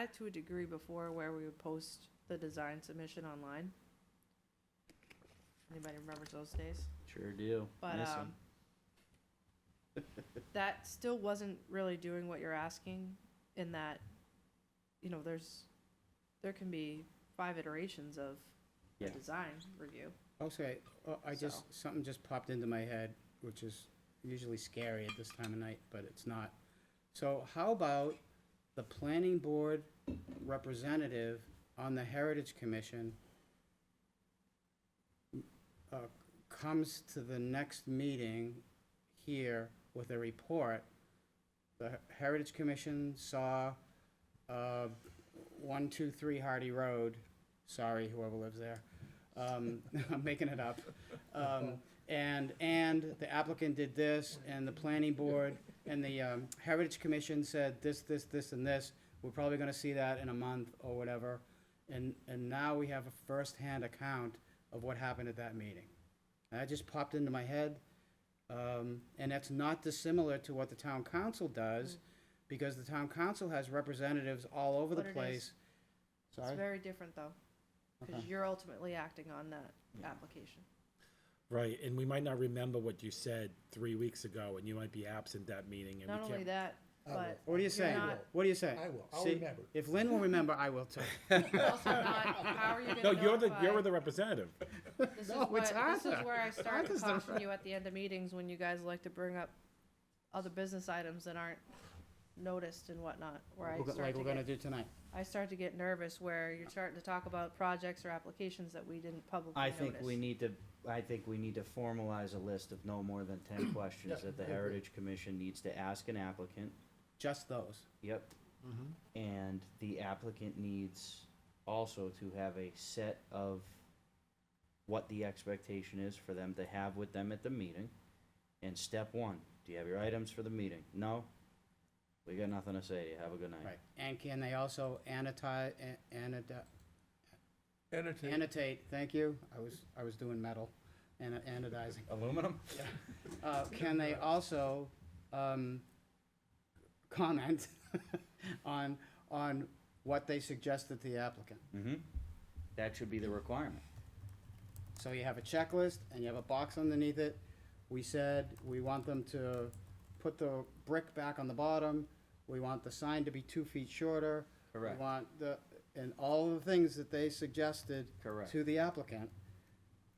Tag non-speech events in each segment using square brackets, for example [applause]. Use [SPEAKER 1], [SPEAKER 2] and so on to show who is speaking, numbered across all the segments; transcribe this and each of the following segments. [SPEAKER 1] that to a degree before where we would post the design submission online. Anybody remembers those days?
[SPEAKER 2] Sure do.
[SPEAKER 1] But,
[SPEAKER 2] Miss 'em.
[SPEAKER 1] um, that still wasn't really doing what you're asking in that, you know, there's, there can be five iterations of a
[SPEAKER 2] Yeah.
[SPEAKER 1] design review.
[SPEAKER 3] Also, I- oh, I
[SPEAKER 1] So.
[SPEAKER 3] just, something just popped into my head, which is usually scary at this time of night, but it's not. So how about the planning board representative on the Heritage Commission uh, comes to the next meeting here with a report? The Heritage Commission saw uh, 123 Hardy Road, sorry, whoever lives there. Um, [laughs] I'm making it up. Um, and, and the applicant did this, and the planning board, and the, um, Heritage Commission said this, this, this, and this. We're probably gonna see that in a month or whatever. And, and now we have a firsthand account of what happened at that meeting. And that just popped into my head. Um, and that's not dissimilar to what the town council does, because the town council has representatives all over the
[SPEAKER 1] What it is.
[SPEAKER 3] place.
[SPEAKER 1] It's
[SPEAKER 3] Sorry?
[SPEAKER 1] very different though, because
[SPEAKER 3] Okay.
[SPEAKER 1] you're ultimately acting on that application.
[SPEAKER 4] Right, and we might not remember what you said three weeks ago, and you might be absent that meeting, and
[SPEAKER 1] Not
[SPEAKER 4] we
[SPEAKER 1] only
[SPEAKER 4] can't.
[SPEAKER 1] that,
[SPEAKER 5] will.
[SPEAKER 1] but
[SPEAKER 3] What do you
[SPEAKER 1] you're
[SPEAKER 3] say?
[SPEAKER 1] not
[SPEAKER 3] What do you say?
[SPEAKER 5] I will. I'll
[SPEAKER 3] See,
[SPEAKER 5] remember.
[SPEAKER 3] If Lynn will remember, I will too.
[SPEAKER 1] also not, how are you
[SPEAKER 4] No,
[SPEAKER 1] gonna
[SPEAKER 4] you're the, you're
[SPEAKER 1] notify?
[SPEAKER 4] the representative.
[SPEAKER 1] This is
[SPEAKER 3] No,
[SPEAKER 1] what,
[SPEAKER 3] it's
[SPEAKER 1] this is
[SPEAKER 3] Arthur. [laughs]
[SPEAKER 1] where I start to
[SPEAKER 3] Arthur's the
[SPEAKER 1] caution you at the end of meetings when you guys like to bring up other business items that aren't noticed and whatnot, where I
[SPEAKER 3] We're go-
[SPEAKER 1] start
[SPEAKER 3] Like
[SPEAKER 1] to
[SPEAKER 3] we're gonna
[SPEAKER 1] get,
[SPEAKER 3] do tonight.
[SPEAKER 1] I start to get nervous where you're starting to talk about projects or applications that we didn't publicly
[SPEAKER 2] I
[SPEAKER 1] notice.
[SPEAKER 2] think we need to, I think we need to formalize a list of no more than
[SPEAKER 5] [coughs]
[SPEAKER 2] ten questions
[SPEAKER 5] Yeah,
[SPEAKER 2] that the
[SPEAKER 5] I agree.
[SPEAKER 2] Heritage Commission needs to ask an applicant.
[SPEAKER 3] Just those.
[SPEAKER 2] Yep.
[SPEAKER 5] Mm-hmm.
[SPEAKER 2] And the applicant needs also to have a set of what the expectation is for them to have with them at the meeting. And step one, do you have your items for the meeting? No? We got nothing to say. to you. Have a good night.
[SPEAKER 3] Right. And can they also annotate, annotate,
[SPEAKER 5] Entertain.
[SPEAKER 3] annotate, thank you. I was, I was doing metal, and anodizing.
[SPEAKER 2] Aluminum?
[SPEAKER 3] Uh, can they also, um, comment [laughs] on, on what they suggested to the applicant?
[SPEAKER 2] Mm-hmm. That should be the requirement.
[SPEAKER 3] So you have a checklist and you have a box underneath it. We said we want them to put the brick back on the bottom. We want the sign to be two feet shorter.
[SPEAKER 2] Correct.
[SPEAKER 3] We want the, and all of the things that they suggested
[SPEAKER 2] Correct.
[SPEAKER 3] to the applicant,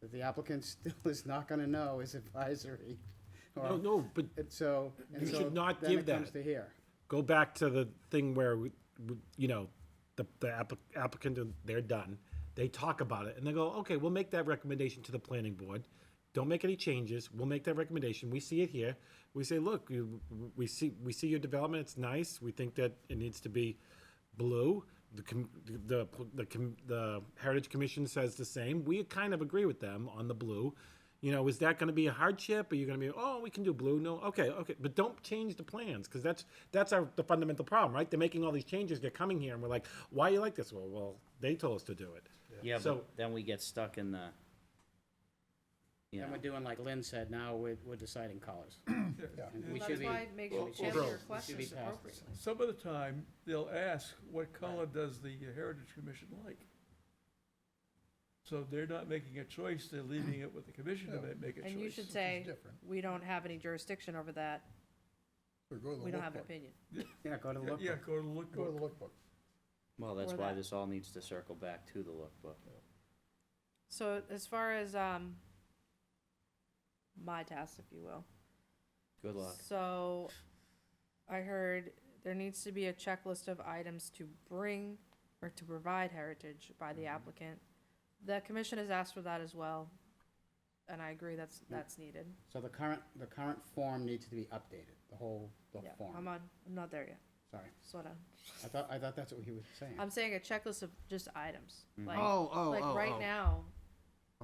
[SPEAKER 3] that the applicant [laughs] still is not gonna know is advisory. or-
[SPEAKER 4] No, no, but
[SPEAKER 3] And so, and
[SPEAKER 4] You
[SPEAKER 3] so
[SPEAKER 4] should not
[SPEAKER 3] then
[SPEAKER 4] give
[SPEAKER 3] it comes
[SPEAKER 4] that.
[SPEAKER 3] to here.
[SPEAKER 4] go back to the thing where, we- we- you know, the, the applic- applicant, they're done. They talk about it and they go, okay, we'll make that recommendation to the planning board. Don't make any changes. We'll make that recommendation. We see it here. We say, look, you- we see, we see your development. It's nice. We think that it needs to be blue. The, com- the, the, com- the Heritage Commission says the same. We kind of agree with them on the blue. You know, is that going to be a hardship? Are you going to be, oh, we can do blue? No, okay, okay, but don't change the plans because that's that's our the fundamental problem, right? They're making all these changes. They're coming here, and we're like, why you like this? Well, well, they told us to do it.
[SPEAKER 2] Yeah, but
[SPEAKER 4] So-
[SPEAKER 2] then we get stuck in the, you
[SPEAKER 3] And
[SPEAKER 2] know,
[SPEAKER 3] we're doing like Lynn said, now we're, we're deciding colors. And we should
[SPEAKER 1] That's
[SPEAKER 3] be-
[SPEAKER 1] why, make sure you
[SPEAKER 3] should
[SPEAKER 1] channel
[SPEAKER 3] be-
[SPEAKER 1] your
[SPEAKER 3] we should be
[SPEAKER 1] questions
[SPEAKER 3] past
[SPEAKER 1] appropriately.
[SPEAKER 6] Some of the time, they'll ask, what color does the Heritage Commission like? So they're not making a choice, they're leaving it with the commission to
[SPEAKER 5] No.
[SPEAKER 6] ma- make a choice.
[SPEAKER 1] And you should say,
[SPEAKER 5] different.
[SPEAKER 1] we don't have any jurisdiction over that,
[SPEAKER 5] Or go to the
[SPEAKER 1] we don't have an
[SPEAKER 5] lookbook.
[SPEAKER 1] opinion.
[SPEAKER 3] Yeah, go to
[SPEAKER 6] Yeah,
[SPEAKER 3] look.
[SPEAKER 6] Yeah, go to the look.
[SPEAKER 5] Go to the lookbook.
[SPEAKER 2] well, that's
[SPEAKER 1] Or
[SPEAKER 2] why
[SPEAKER 1] that.
[SPEAKER 2] this all needs to circle back to the lookbook.
[SPEAKER 1] So as far as, um, my task, if you will,
[SPEAKER 2] Good luck.
[SPEAKER 1] So, I heard there needs to be a checklist of items to bring or to provide heritage by
[SPEAKER 2] Mm-hmm.
[SPEAKER 1] the applicant. The commission has asked for that as well, and I agree that's, that's needed.
[SPEAKER 3] So the current, the current form needs to be updated, the whole, the
[SPEAKER 1] Yeah, I'm
[SPEAKER 3] form.
[SPEAKER 1] on, I'm not there yet,
[SPEAKER 3] Sorry.
[SPEAKER 1] sort of.
[SPEAKER 3] I thought, I thought that's what he was saying.
[SPEAKER 1] I'm saying a checklist of just items,
[SPEAKER 2] Mm-hmm.
[SPEAKER 1] like,
[SPEAKER 3] Oh, oh,
[SPEAKER 1] like
[SPEAKER 3] oh,
[SPEAKER 1] right
[SPEAKER 3] oh.
[SPEAKER 1] now,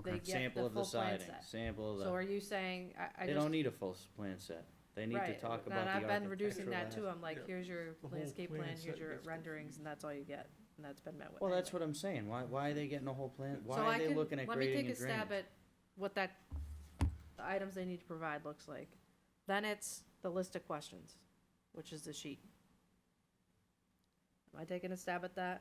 [SPEAKER 1] they
[SPEAKER 3] Okay.
[SPEAKER 1] get
[SPEAKER 2] Sample
[SPEAKER 1] the
[SPEAKER 2] of the
[SPEAKER 1] full plan
[SPEAKER 2] siding,
[SPEAKER 1] set.
[SPEAKER 2] sample of
[SPEAKER 1] So are
[SPEAKER 2] the,
[SPEAKER 1] you saying, I, I
[SPEAKER 2] they
[SPEAKER 1] just.
[SPEAKER 2] don't need a full s- plan set. They need to
[SPEAKER 1] Right,
[SPEAKER 2] talk
[SPEAKER 1] and
[SPEAKER 2] about the
[SPEAKER 1] I've
[SPEAKER 2] architectural.
[SPEAKER 1] been reducing that too,
[SPEAKER 2] as-
[SPEAKER 1] I'm like,
[SPEAKER 6] Yeah.
[SPEAKER 1] here's your
[SPEAKER 6] The whole
[SPEAKER 1] landscape
[SPEAKER 6] plan
[SPEAKER 1] plan,
[SPEAKER 6] set
[SPEAKER 1] here's your
[SPEAKER 6] gets
[SPEAKER 1] renderings,
[SPEAKER 6] confused.
[SPEAKER 1] and that's all you get, and that's been met with.
[SPEAKER 2] Well, that's
[SPEAKER 1] anyway.
[SPEAKER 2] what I'm saying. Why, why are they getting a whole plan? Why
[SPEAKER 1] So I
[SPEAKER 2] are they
[SPEAKER 1] can-
[SPEAKER 2] looking at grading and
[SPEAKER 1] Let me take a stab
[SPEAKER 2] drainage?
[SPEAKER 1] at what that, the items they need to provide looks like. Then it's the list of questions, which is the sheet. Am I taking a stab at that?